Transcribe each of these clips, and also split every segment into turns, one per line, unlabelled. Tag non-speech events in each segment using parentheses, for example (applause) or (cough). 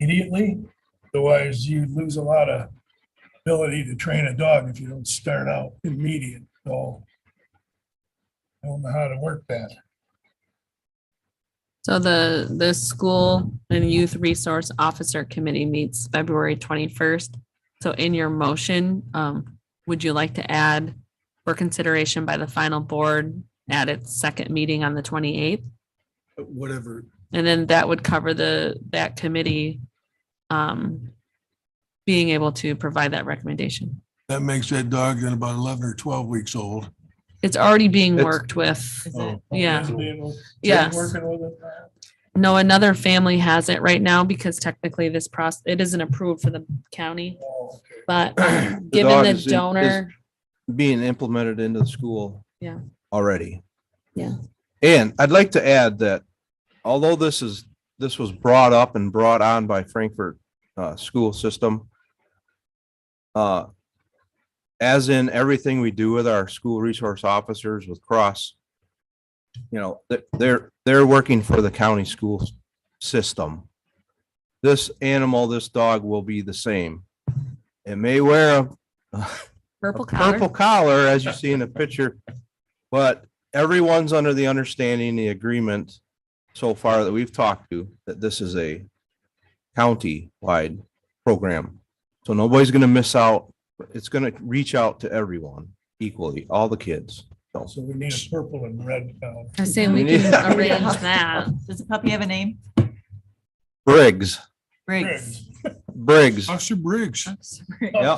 immediately. Otherwise, you lose a lot of ability to train a dog if you don't start out immediate. So I don't know how to work that.
So the, the school and youth resource officer committee meets February twenty-first. So in your motion, um, would you like to add for consideration by the final board at its second meeting on the twenty-eighth?
whatever.
And then that would cover the, that committee, um, being able to provide that recommendation.
That makes that dog then about eleven or twelve weeks old.
It's already being
It's-
worked with.
Oh,
Yeah,
Yeah.
yes. No, another family has it right now because technically this process, it isn't approved for the county,
Oh,
(clears throat)
but um, given
dog
the
is in- is-
donor,
being implemented into the school.
Yeah.
Already.
Yeah.
And I'd like to add that although this is, this was brought up and brought on by Frankfurt uh, school system. Uh, as in everything we do with our school resource officers with cross. You know, that they're, they're working for the county school s- system. This animal, this dog will be the same. It may wear a
purple
a
collar.
Purple collar, as you see in the picture. But everyone's under the understanding, the agreement so far that we've talked to, that this is a county-wide program. So nobody's gonna miss out. It's gonna reach out to everyone equally, all the kids. So
So we need a purple and red uh, now.
I say we can
(laughs) Yeah.
arrange that.
Does the puppy have a name?
Briggs,
Briggs.
Briggs,
Officer Briggs.
Oh.
Yeah.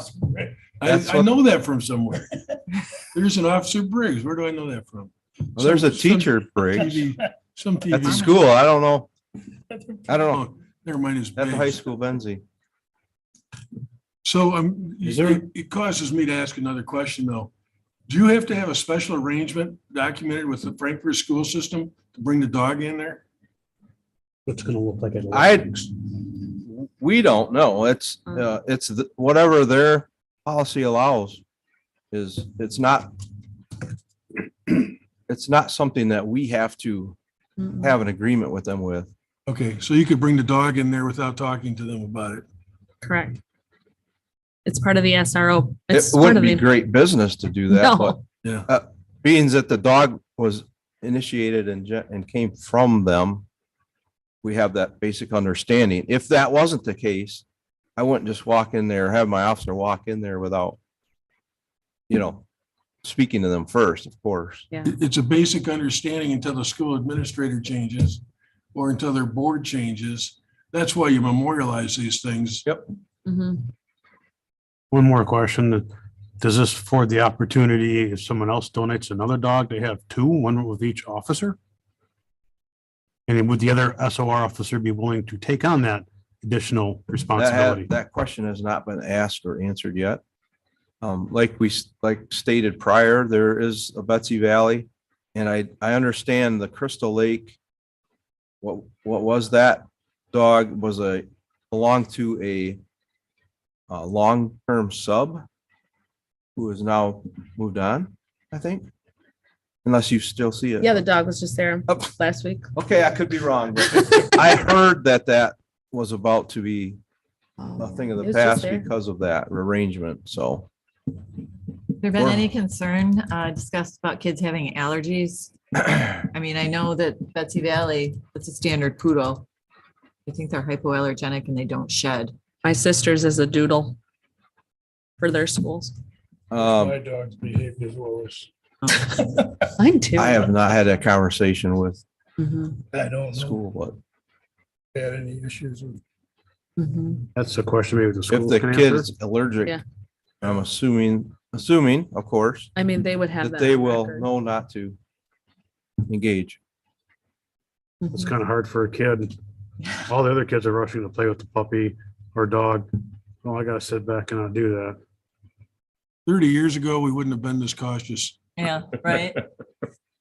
I,
That's
I
what-
know that from
(laughs)
somewhere. There's an Officer Briggs. Where do I know that from?
Well, there's a
Some- some
teacher Briggs
TV Some
at the
TV.
school. I don't know. I don't know.
Oh, Never mind, it's
At the high
Briggs.
school, Benzie.
So I'm,
Is there-
it it causes me to ask another question though. Do you have to have a special arrangement documented with the Frankfurt school system to bring the dog in there?
It's gonna look like it.
I, we don't know. It's,
Mm.
uh, it's the- whatever their policy allows is, it's not, (clears throat) it's not something that we have to
Mm-mm.
have an agreement with them with.
Okay, so you could bring the dog in there without talking to them about it.
Correct. It's part of the SRO.
It
It's part
would
of
be
the,
great business to do that, but
(laughs) no,
being that the dog was initiated and, ge- and came from them, we have that basic understanding. If that wasn't the case, I wouldn't just walk in there, have my officer walk in there without, you know, speaking to them first, of course.
It- It's a basic understanding until the school administrator changes or until their board changes. That's why you memorialize these things.
Mhm.
One more question. Does this afford the opportunity, if someone else donates another dog, they have two, one with each officer? And then would the other SOR officer be willing to take on that additional
That,
responsibility?
had- that question has not been asked or answered yet. Um, like we, s- like stated prior, there is a Betsy Valley. And I, I understand the Crystal Lake. What, what was that dog was a, belonged to a, uh long-term sub who is now moved on, I think. Unless you still see it.
yeah, the dog was just there
Up.
last week.
Okay, I could be wrong. but I heard that that was about to be a thing of
It
the
was just
past
there.
because of that arrangement, so.
There been any concern uh, discussed about kids having allergies? I mean, I know that Betsy Valley, that's a standard poodle. I think they're hypoallergenic and they don't shed.
My sister's is a doodle for their schools.
Um,
My dog's behavior is worse.
Mine too.
I have not had that conversation with
Mhm,
I don't know
school, but
if they had any issues with
mhm.
That's a question maybe the
if
school
the
can
kid
answer.
is allergic,
Yeah.
I'm assuming, assuming, of course,
I mean, they would have
that
that.
they
on
will
record.
know not to engage.
It's
Mhm.
kind of hard for a kid. All the other kids are rushing to play with the puppy or dog. Oh, I gotta sit back and not do that.
Thirty years ago, we wouldn't have been this cautious.
Yeah, right.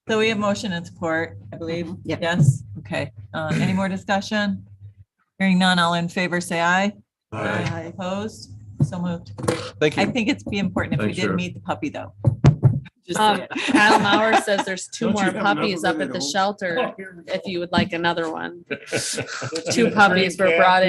So we have motion and support, I believe.
Mhm, yeah.
Yes, okay. Uh, Any more discussion? Hearing none, all in favor, say aye. Opposed? So moved.
Thank
I
you.
think it'd be important if we
Thanks,
did
Sheriff.
meet the puppy, though. Just
Um,
saying.
Kyle Mauer says there's two
Don't you
more
have enough
puppies
of
up
it
at
at
the
home?
shelter,
here we
if
go.
you would like another one.
Let's
Two
get a
puppies
free
were
cat.
brought in.